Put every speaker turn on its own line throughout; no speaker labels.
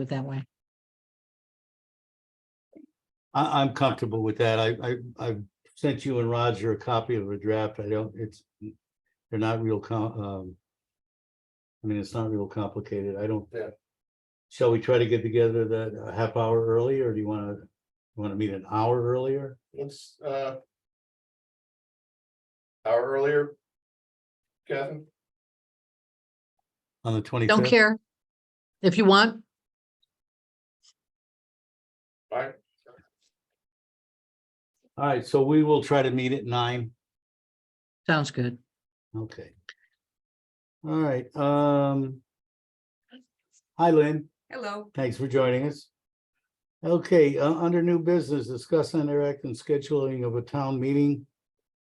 it that way.
I, I'm comfortable with that. I, I, I sent you and Roger a copy of a draft. I don't, it's, they're not real com, um. I mean, it's not real complicated. I don't. Shall we try to get together that a half hour early or do you wanna, wanna meet an hour earlier?
Let's, uh. Hour earlier. Catherine,
On the twenty
Don't
fifth?
care. If you want,
right?
All right, so we will try to meet at nine.
sounds good.
Okay. All right, um. Hi, Lynn.
Hello,
Thanks for joining us. Okay, uh, under new business, discuss under act and scheduling of a town meeting.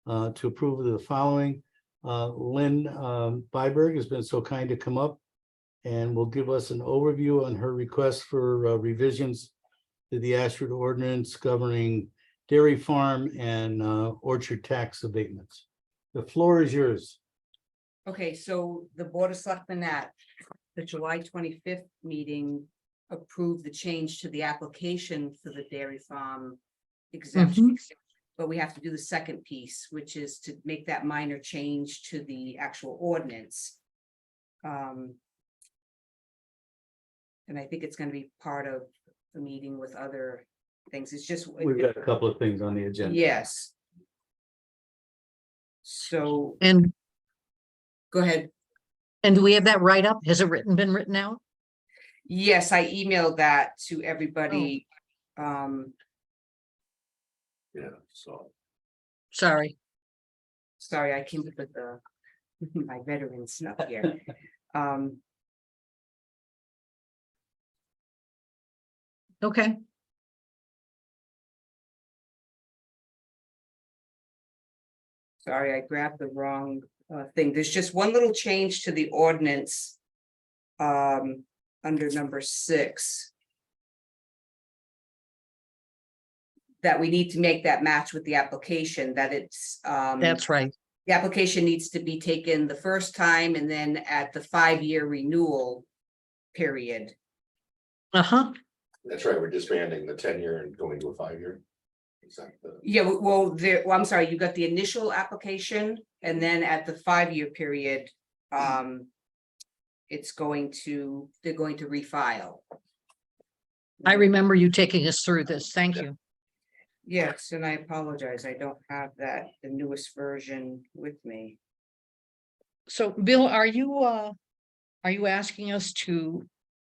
Uh, to approve of the following, uh, Lynn, um, Byberg has been so kind to come up. And will give us an overview on her request for uh, revisions. To the Ashford ordinance governing dairy farm and, uh, orchard tax abatements. The floor is yours.
okay, so the Board of Selectmen at the July twenty-fifth meeting approved the change to the application for the dairy farm exemption. But we have to do the second piece, which is to make that minor change to the actual ordinance. Um, And I think it's gonna be part of the meeting with other things, it's just.
We've got a couple of things on the agenda.
Yes. So,
And,
go ahead.
and do we have that right up? Has it written, been written out?
Yes, I emailed that to everybody. Um,
Yeah, so.
Sorry.
sorry, I came up with the, my veteran snuff here. Um,
Okay.
sorry, I grabbed the wrong uh thing. There's just one little change to the ordinance. Um, under number six. That we need to make that match with the application, that it's um.
That's right.
the application needs to be taken the first time and then at the five-year renewal period.
Uh-huh.
That's right, we're disbanding the ten year and going to a five year. Exactly.
Yeah, w- well, there, well, I'm sorry, you got the initial application and then at the five-year period, um, it's going to, they're going to refile.
I remember you taking us through this. Thank you.
Yes, and I apologize. I don't have that, the newest version with me.
So Bill, are you, uh, are you asking us to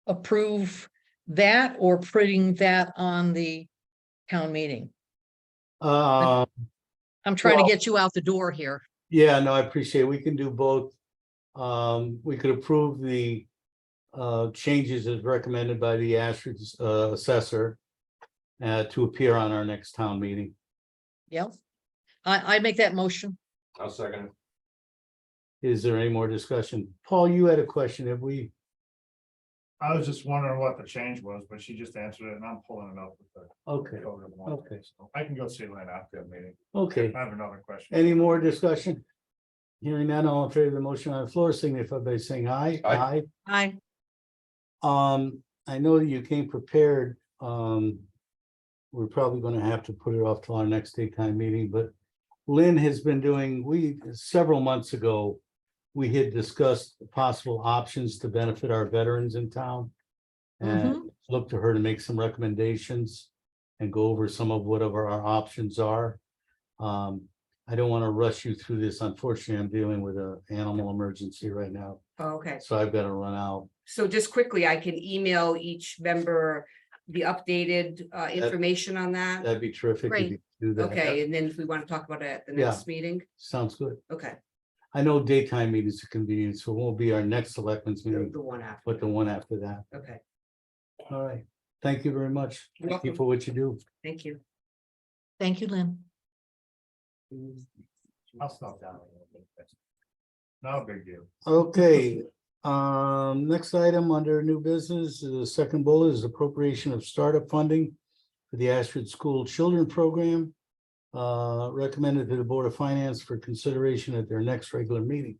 approve that or putting that on the town meeting?
Uh,
I'm trying to
Well-
get you out the door here.
Yeah, no, I appreciate it. We can do both. Um, we could approve the uh, changes as recommended by the Ashford uh, assessor uh, to appear on our next town meeting.
Yep. I, I make that motion.
I'll second. it.
Is there any more discussion? Paul, you had a question. Have we,
I was just wondering what the change was, but she just answered it and I'm pulling it up. with the
okay,
code of law.
Okay.
So I can go see Lynn after the meeting.
okay.
I have another question.
Any more discussion? Hearing none, all in favor of the motion on the floor, signify by saying aye.
Aye.
Aye.
Um, I know that you came prepared, um. We're probably gonna have to put it off till our next daytime meeting, but Lynn has been doing, we, several months ago. We had discussed possible options to benefit our veterans in town. And look to her to make some recommendations and go over some of whatever our options are. Um, I don't wanna rush you through this. Unfortunately, I'm dealing with a animal emergency right now,
Okay.
so I've gotta run out.
So just quickly, I can email each member the updated uh information on that.
That'd be terrific if
Great.
you could do that.
Okay, and then if we want to talk about it at the
Yeah.
next meeting,
Sounds good.
okay,
I know daytime meetings are convenient, so it won't be our next selectmen's
the
meeting,
the one after,
but Mm-hmm. the one after that.
okay,
All right. Thank you very much.
You're
Thank you
welcome.
for what you do.
thank you.
Thank you, Lynn.
I'll stop down. Not a big deal.
Okay, um, next item under new business, the second bullet is appropriation of startup funding for the Ashford School Children Program. Uh, recommended to the Board of Finance for consideration at their next regular meeting.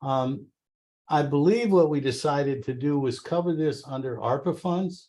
Um, I believe what we decided to do was cover this under ARPA funds.